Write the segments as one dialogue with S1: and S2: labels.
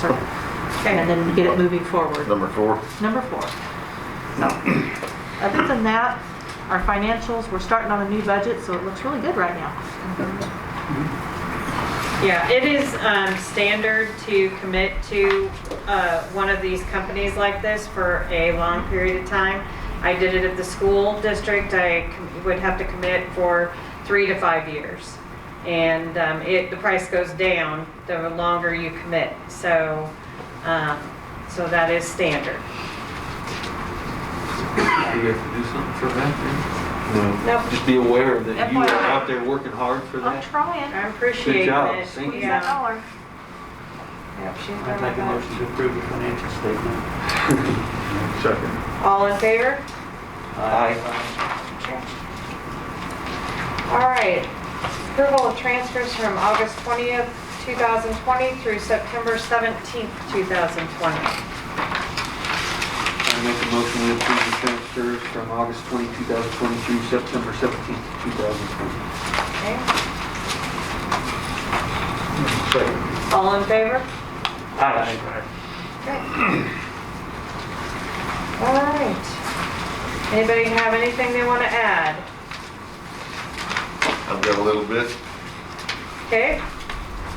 S1: so, and then get it moving forward.
S2: Number four.
S1: Number four. So, other than that, our financials, we're starting on a new budget, so it looks really good right now.
S3: Yeah, it is um, standard to commit to uh, one of these companies like this for a long period of time. I did it at the school district, I com- would have to commit for three to five years. And um, it, the price goes down the longer you commit, so, um, so that is standard.
S4: Do you have to do something for that
S2: No.
S3: Nope,
S4: then? Just be aware that you are
S1: FYI.
S4: out there working hard for
S1: I'm
S4: that.
S1: trying.
S3: I appreciate it.
S4: Good job, thank you.
S3: Yeah.
S1: dollar.
S3: Yep, she's
S5: I'd
S3: done
S5: like a
S3: that.
S5: motion to approve the financial statement.
S2: Second.
S3: All in favor?
S4: Aye.
S3: All right, approval of transfers from August 20th, 2020 through September 17th, 2020.
S4: I make a motion to approve the transfers from August 20, 2020 through September 17, 2020.
S3: Okay,
S2: Second.
S3: all in favor?
S4: Aye.
S3: Okay. All right. Anybody have anything they want to add?
S2: I've got a little bit.
S3: Okay?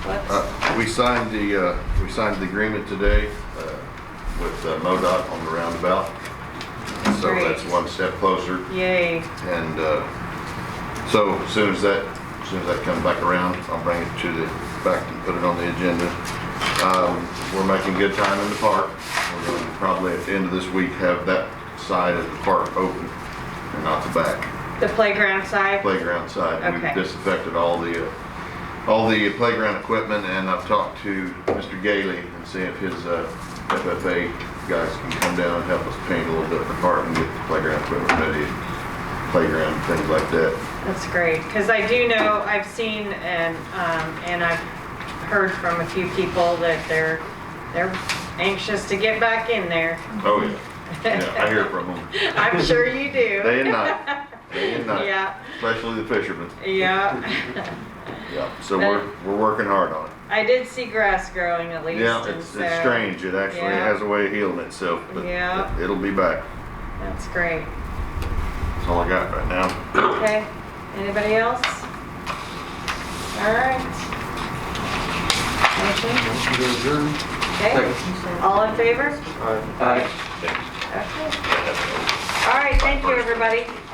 S3: Let's,
S2: Uh, We signed the, uh, we signed the agreement today uh, with uh, MoDOT on the roundabout. So
S3: Great.
S2: that's one step closer.
S3: yay.
S2: And uh, so as soon as that, as soon as that comes back around, I'll bring it to the, back and put it on the agenda. Um, We're making good time in the park. We're going to probably at the end of this week have that side of the park open and not the back
S3: The playground side?
S2: playground side.
S3: Okay.
S2: We've disinfected all the, uh, all the playground equipment and I've talked to Mr. Gailey and see if his uh, FFA guys can come down and help us paint a little bit of the park and get the playground equipment ready, playground, things like that.
S3: That's great, because I do know, I've seen and, um, and I've heard from a few people that they're, they're anxious to get back in there.
S2: Oh, yeah. Yeah, I hear from them.
S3: I'm sure you
S2: Day
S3: do.
S2: and night. Day and night.
S3: Yeah,
S2: Especially the fishermen.
S3: yeah.
S2: Yeah. So we're, we're working hard on it.
S3: I did see grass growing at least.
S2: Yeah,
S3: and
S2: it's,
S3: so-
S2: it's strange. It actually
S3: Yeah.
S2: has a way of healing itself, but
S3: Yeah.
S2: it- it'll be back.
S3: That's great.
S2: That's all I got right now.
S3: Okay, anybody else? All right. Motion,
S4: Motion to adjourn.
S3: okay, all in favor?
S4: Aye.
S3: Okay. All right, thank you, everybody.